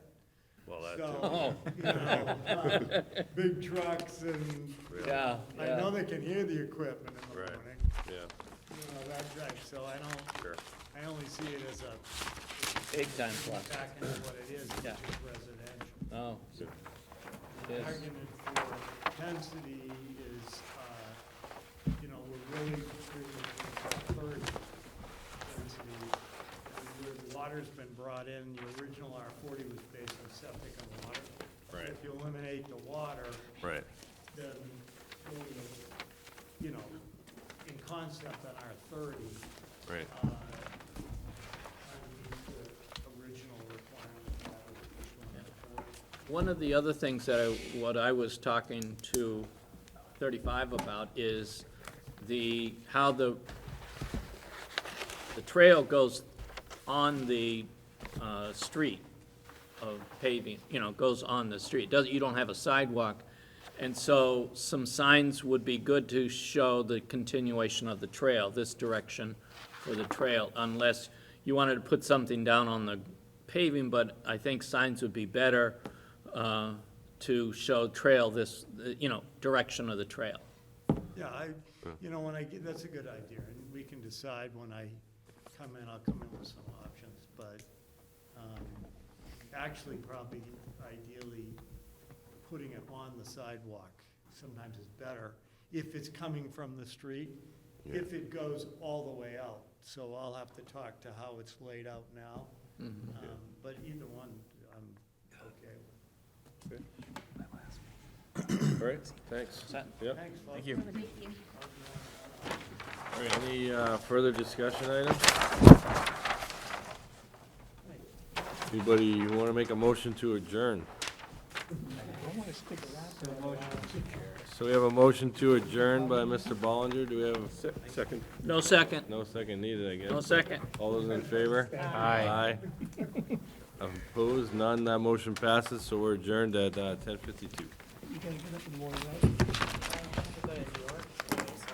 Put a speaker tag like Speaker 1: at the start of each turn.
Speaker 1: lot too.
Speaker 2: So, you know, uh, big trucks and,
Speaker 1: Yeah,
Speaker 2: I know
Speaker 3: yeah.
Speaker 2: they can hear the equipment in the
Speaker 1: Right.
Speaker 2: morning.
Speaker 1: yeah,
Speaker 2: You know, that, that, so I don't,
Speaker 1: sure.
Speaker 2: I only see it as a.
Speaker 3: Big time plus.
Speaker 2: Back into what it is, which
Speaker 3: Yeah.
Speaker 2: is residential.
Speaker 3: Oh,
Speaker 1: Good.
Speaker 3: Yes.
Speaker 2: Argument for density is, uh, you know, we're really, we're third density. Where water's been brought in, the original R forty was based on septic and water.
Speaker 1: Right.
Speaker 2: If you eliminate the water,
Speaker 1: Right,
Speaker 2: then, you know, in concept on R thirty,
Speaker 1: right,
Speaker 2: uh, underneath the original requirement that was issued on
Speaker 3: One of the other things that I, what I was talking to thirty-five about is the, how the, the trail goes on the, uh, street of paving, you know, goes on the street, doesn't, you don't have a sidewalk. And so some signs would be good to show the continuation of the trail, this direction for the trail, unless you wanted to put something down on the paving, but I think signs would be better, uh, to show trail this, you know, direction of the trail.
Speaker 2: Yeah, I, you know, when I, get that's a good idea, and we can decide when I come in, I'll come in with some options, but, um, actually, probably ideally, putting it on the sidewalk sometimes is better, if it's coming from the street, if it goes all the way out, so I'll have to talk to how it's laid out now. Um, But either one, I'm okay with.
Speaker 1: all right, thanks.
Speaker 3: Set?
Speaker 1: Yeah,
Speaker 2: Thanks, folks.
Speaker 1: thank you. All right, any uh, further discussion items? Anybody, who want to make a motion to adjourn? So we have a motion to adjourn by Mr. Ballinger, do we have,
Speaker 4: Second.
Speaker 3: No second,
Speaker 1: no second needed, I guess?
Speaker 3: no second.
Speaker 1: All those in favor? Aye. Opposed, none, that motion passes, so we're adjourned at uh, ten fifty-two.
Speaker 4: You gotta get up in the morning, right?